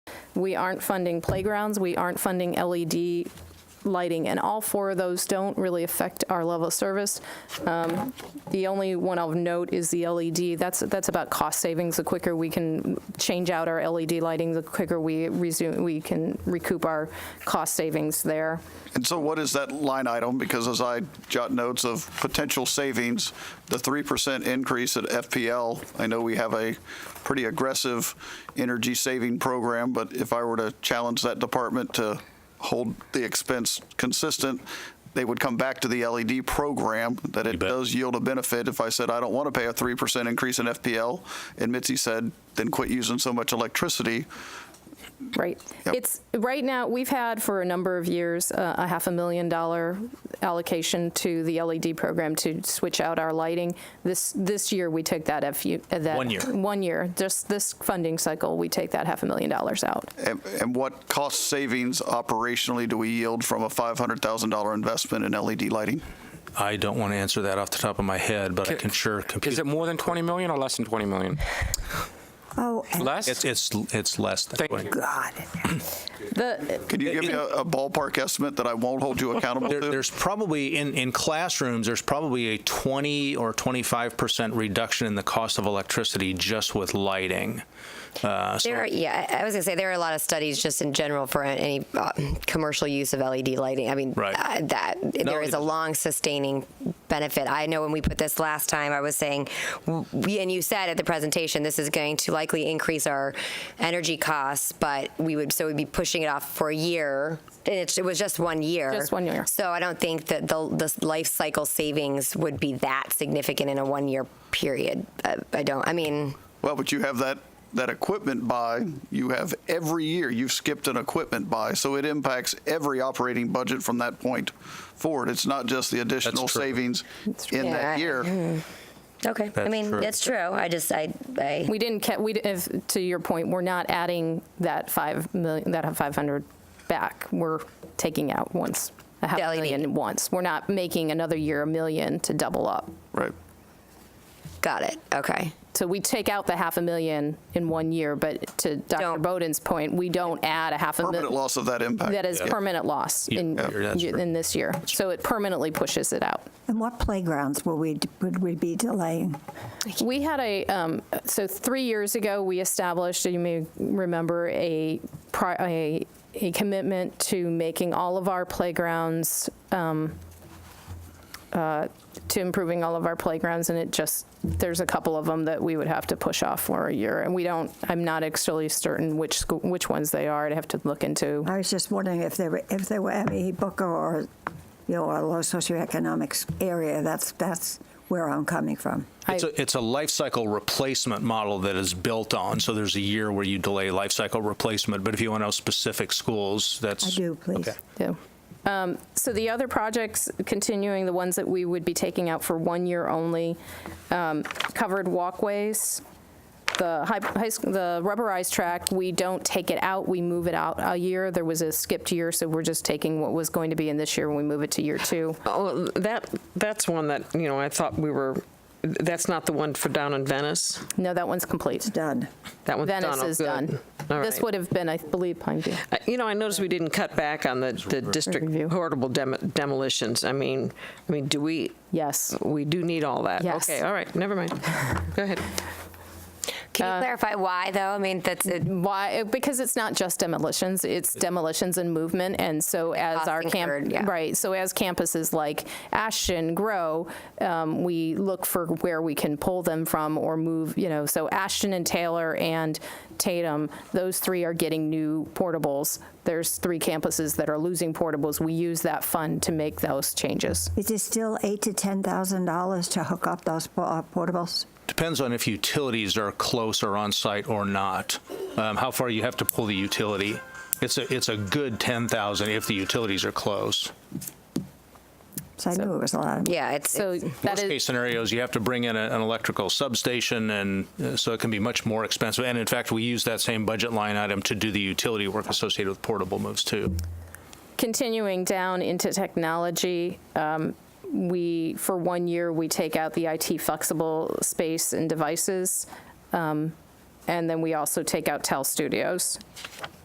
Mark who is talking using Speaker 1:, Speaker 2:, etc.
Speaker 1: We aren't funding playgrounds, we aren't funding LED lighting, and all four of those don't really affect our level of service. Um, The only one of note is the LED. That's, that's about cost savings. The quicker we can change out our LED lighting, the quicker we resume, we can recoup our cost savings there.
Speaker 2: And so what is that line item? Because as I jot notes of potential savings, the 3% increase at FPL, I know we have a pretty aggressive energy saving program, but if I were to challenge that department to hold the expense consistent, they would come back to the LED program, that it
Speaker 3: bet.
Speaker 2: does yield a benefit. If I said, I don't want to pay a 3% increase in FPL, and Mitzi said, then quit using so much electricity,
Speaker 1: Right.
Speaker 2: Yep.
Speaker 1: It's, right now, we've had for a number of years, uh, a half a million dollar allocation to the LED program to switch out our lighting. This, this year, we took that, FU uh, that.
Speaker 3: One year.
Speaker 1: One year, just this funding cycle, we take that half a million dollars out.
Speaker 2: And and what cost savings operationally do we yield from a $500,000 investment in LED lighting?
Speaker 3: I don't want to answer that off the top of my head, but I can sure compute.
Speaker 4: Is it more than 20 million or less than 20 million?
Speaker 5: Oh, and
Speaker 4: Less?
Speaker 3: It's, it's, it's less than
Speaker 4: Thank
Speaker 3: 20.
Speaker 4: you.
Speaker 5: God.
Speaker 1: The,
Speaker 2: Can you give me a a ballpark estimate that I won't hold you accountable
Speaker 3: There,
Speaker 2: to?
Speaker 3: there's probably, in, in classrooms, there's probably a 20 or 25% reduction in the cost of electricity just with lighting. Uh, so-
Speaker 6: There are, yeah, I I was gonna say there are a lot of studies just in general for any uh, commercial use of LED lighting. I mean,
Speaker 3: Right.
Speaker 6: uh, that there is a
Speaker 3: it-
Speaker 6: long sustaining benefit. I know when we put this last time, I was saying, w- we, and you said at the presentation, this is going to likely increase our energy costs, but we would so we'd be pushing it off for a year. And it, it was just one year.
Speaker 1: Just one year.
Speaker 6: So I don't think that the, the life cycle savings would be that significant in a one year period. Uh, I don't. I mean.
Speaker 2: Well, but you have that, that equipment buy, you have every year, you've skipped an equipment buy, so it impacts every operating budget from that point forward. It's not just the additional
Speaker 3: true.
Speaker 2: savings in
Speaker 6: Yeah, I-
Speaker 1: Mm-hmm.
Speaker 2: that year.
Speaker 6: Okay, I
Speaker 3: That's
Speaker 6: mean,
Speaker 3: true.
Speaker 6: that's true. I just, I, I,
Speaker 1: we didn't, ca- we, di- if, to your point, we're not adding that 5 million, that 500 back. We're taking out once, a half
Speaker 6: The LED.
Speaker 1: million once. We're not making another year a million to double up.
Speaker 2: Right.
Speaker 6: got it. Okay.
Speaker 1: So we take out the half a million in one year, but to Dr.
Speaker 6: Don't.
Speaker 1: Bowden's point, we don't add a half a
Speaker 2: Permanent
Speaker 1: million.
Speaker 2: loss of that impact.
Speaker 1: That is permanent loss in,
Speaker 3: Yeah, that's true.
Speaker 1: in this year. So it permanently pushes it out.
Speaker 5: And what playgrounds will we, would we be delaying?
Speaker 1: We had a, um, so three years ago, we established, you may remember, a, pri- a, a commitment to making all of our playgrounds, um, uh, to improving all of our playgrounds, and it just, there's a couple of them that we would have to push off for a year. And we don't, I'm not actually certain which, school- which ones they are. I'd have to look into.
Speaker 5: I was just wondering if there were, if there were any Booker or, you know, a low socioeconomic s- area, that's, that's where I'm coming from.
Speaker 3: It's a, it's a life cycle replacement model that is built on. So there's a year where you delay life cycle replacement, but if you want to know specific schools, that's.
Speaker 5: I do, please.
Speaker 3: Okay.
Speaker 1: do. Um, So the other projects, continuing, the ones that we would be taking out for one year only, um, covered walkways, the high, high sch- the rubberized track, we don't take it out, we move it out a year. There was a skipped year, so we're just taking what was going to be in this year, and we move it to year two.
Speaker 7: Oh, that, that's one that, you know, I thought we were, that's not the one for down in Venice?
Speaker 1: No, that one's complete.
Speaker 5: Done.
Speaker 7: That one's done?
Speaker 1: Venice
Speaker 7: Oh,
Speaker 1: is
Speaker 7: good.
Speaker 1: done.
Speaker 7: All
Speaker 1: This
Speaker 7: right.
Speaker 1: would have been, I believe, Pine View.
Speaker 7: Uh, You know, I noticed we didn't cut back on the, the district
Speaker 1: Review.
Speaker 7: portable dem- demolitions. I mean, I mean, do we,
Speaker 1: Yes.
Speaker 7: we do need all that?
Speaker 1: Yes.
Speaker 7: Okay, all right, never mind. Go ahead.
Speaker 6: Can you clarify why, though? I mean, that's it.
Speaker 1: Why? Because it's not just demolitions, it's demolitions and movement. And so as
Speaker 6: Costs
Speaker 1: our camp,
Speaker 6: incurred, yeah.
Speaker 1: right, so as campuses like Ashton grow, um, we look for where we can pull them from or move, you know, so Ashton and Taylor and Tatum, those three are getting new portables. There's three campuses that are losing portables. We use that fund to make those changes.
Speaker 5: Is it still eight to $10,000 to hook up those po- uh, portables?
Speaker 3: Depends on if utilities are close or on site or not, um, how far you have to pull the utility. It's a, it's a good 10,000 if the utilities are close.
Speaker 5: So I knew it was a lot of
Speaker 6: Yeah, it's,
Speaker 1: So
Speaker 6: it's-
Speaker 1: that
Speaker 3: Worst
Speaker 1: is,
Speaker 3: case scenarios, you have to bring in a- an electrical substation and uh, so it can be much more expensive. And in fact, we use that same budget line item to do the utility work associated with portable moves too.
Speaker 1: continuing down into technology, um, we, for one year, we take out the IT flexible space and devices. um, And then we also take out TEL Studios.